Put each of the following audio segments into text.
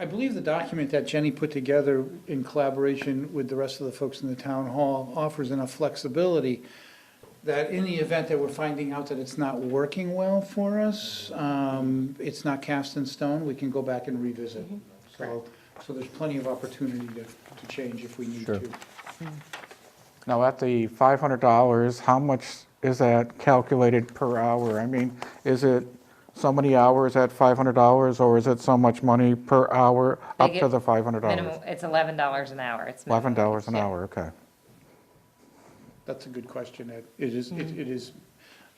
I believe the document that Jenny put together in collaboration with the rest of the folks in the town hall offers enough flexibility that in the event that we're finding out that it's not working well for us, um, it's not cast in stone, we can go back and revisit. So, so there's plenty of opportunity to, to change if we need Sure. to. Now, at the $500, how much is that calculated per hour? I mean, is it so many hours at $500, or is it so much money per hour They up to get the $500? Minimum, it's eleven dollars an hour. It's minimum $11 an wage, yeah. hour, okay. That's a good question, Ed. It is, it it is,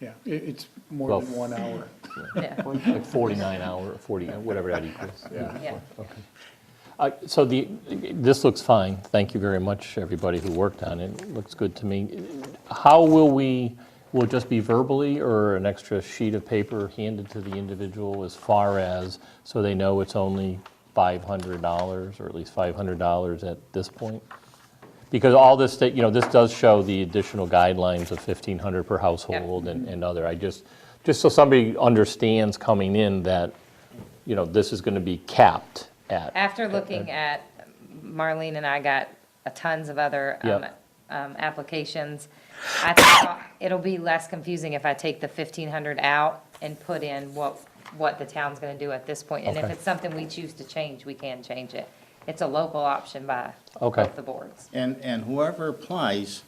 yeah, it, it's Well, more than one hour. Yeah, Like 49 hour, 40, whatever that equals. yeah. Uh, So the, this looks fine. Thank you very much, everybody who worked on it. It Looks good to me. How will we, will it just be verbally or an extra sheet of paper handed to the individual as far as, so they know it's only $500 or at least $500 at this point? Because all this, sta- you know, this does show the additional guidelines of 1,500 per household and and other. I just, just so somebody understands coming in that, you know, this is going to be capped at. After looking at, Marlene and I got a tons of other um, Yep. um, applications. I think it'll be less confusing if I take the fifteen hundred out and put in what, what the town's gonna do at this point. And if Okay. it's something we choose to change, we can change it. It's a local option by Okay. both the boards. And, and whoever applies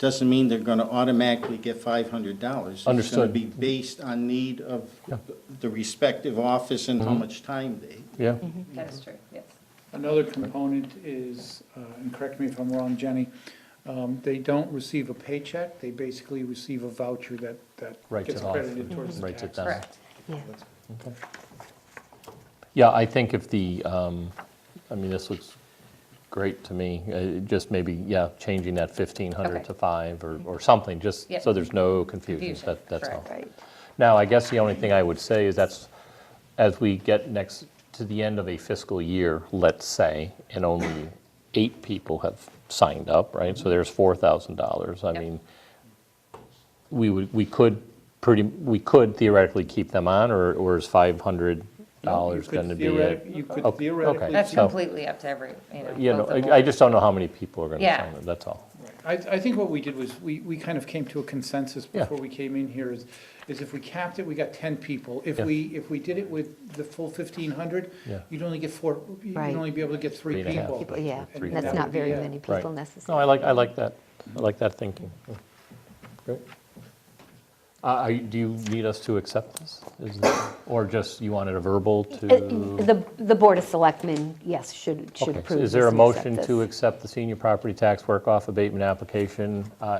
doesn't mean they're gonna automatically get five hundred dollars. It's gonna Understood. be based on need of Yeah. Mm-hmm. the respective office and how much time they. Yeah, That is true, yes. Another component is, uh, and correct me if I'm wrong, Jenny, um, they don't receive a paycheck, they basically receive a voucher that, that Writes gets it off. credited towards the Writes it tax. down. Correct. yeah, I think if the, um, I mean, this looks great to me, Uh, just maybe, yeah, changing that 1,500 Okay. to 5 or or something, just Yep. so there's no confusion, Confusion, That- that's all. correct. Right. Now, I guess the only thing I would say is that's, as we get next, to the end of a fiscal year, let's say, and only eight people have signed up, right? So there's $4,000. I Yep. mean, we would, we could pretty, we could theoretically keep them on, or, or is $500 You could going to be? theoretic- a- You okay. could theoretically. That's keep- completely up to every, you know. You know, both the I I boards. just don't know how many people are going to Yeah. sign up, that's all. I, I think what we did was, we, we kind of came to a consensus Yeah. before we came in here is, is if we capped it, we got ten people. If Yeah. we, if we did it with the full fifteen hundred, Yeah. you'd only get four, you'd Right. only be able to get three Three and a half. people. People, yeah, Three and that's people. not very Yeah. many Right. people No, I necessarily. like, I like that, I like that thinking. Great. Uh, are you- Do you need us to accept this? Is it- Or just, you wanted a verbal to? Uh, The, the Board of Selectmen, yes, should, should Okay, so approve Is there a this and accept motion this. to accept the senior property tax work-off abatement application uh,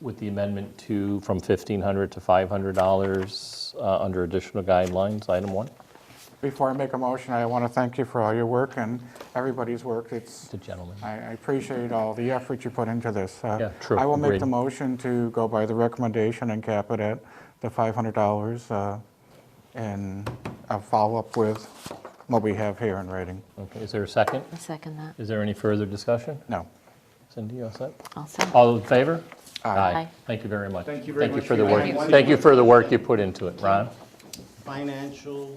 with the amendment to, from $1,500 to $500 uh, under additional guidelines, item one? Before I make a motion, I want to thank you for all your work and everybody's work. It's, The gentleman. I I appreciate all the effort you put into this. Uh, Yeah, true, I will make agreed. the motion to go by the recommendation and cap it at the $500, uh, and I'll follow up with what we have here in writing. Okay, is there a second? I'll Second that, Is there any further discussion? No. Cindy, you all set? also. All in favor? Aye. Thank you very much. Thank you very much for the for work. your time. Thank you for the work you put into it, Ron. Financial,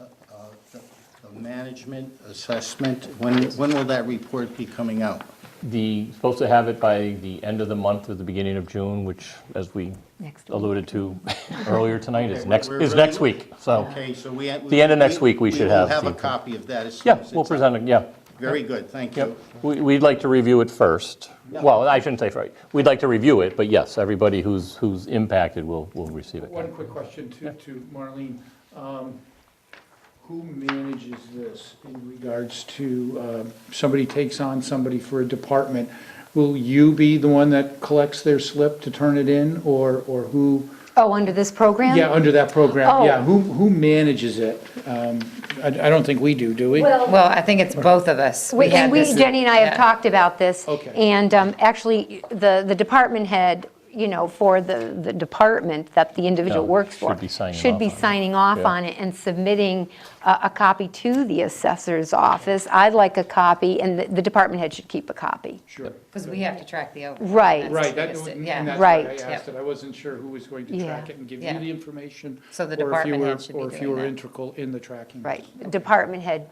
uh, uh, the- the management, assessment, when, when will that report be coming out? The, supposed to have it by the end of the month or the beginning of June, which, as we Next week. alluded to earlier tonight, is Okay, next, we're is really- next week, so. Okay, so we. The end of next week, we should have We will have a the- copy of that as soon as Yeah, it's. we'll present it, yeah. Very good, thank you. Yep, We- we'd like to review it first. Well, I shouldn't say first, we'd like to review it, but yes, everybody who's, who's impacted will, will receive it. One quick question to, to Marlene. Um, Who manages this in regards to, uh, somebody takes on somebody for a department? Will you be the one that collects their slip to turn it in, or, or who? Oh, under this program? Yeah, under that program, Oh. yeah, who, who manages it? Um, I, I don't think we do, do we? Well, Well, I think it's both of us. We- had And we, this- Jenny and I yeah. have talked about this. Okay. And um, actually, the, the department head, you know, for the, the department that the individual Yeah, works for. should be signing should off be on it. signing off Yeah. on it and submitting a, a copy to the assessor's office. I'd like a copy, and the, the department head should keep a copy. Sure. Because we have to track the overtime. Right. That's Right, that, just it, and yeah. that's why I Right. asked it, I wasn't sure who was going to Yeah. track it and give you Yeah. the information. So or the if you department were- head should be Or if you doing were that. integral in the tracking. Right. Department head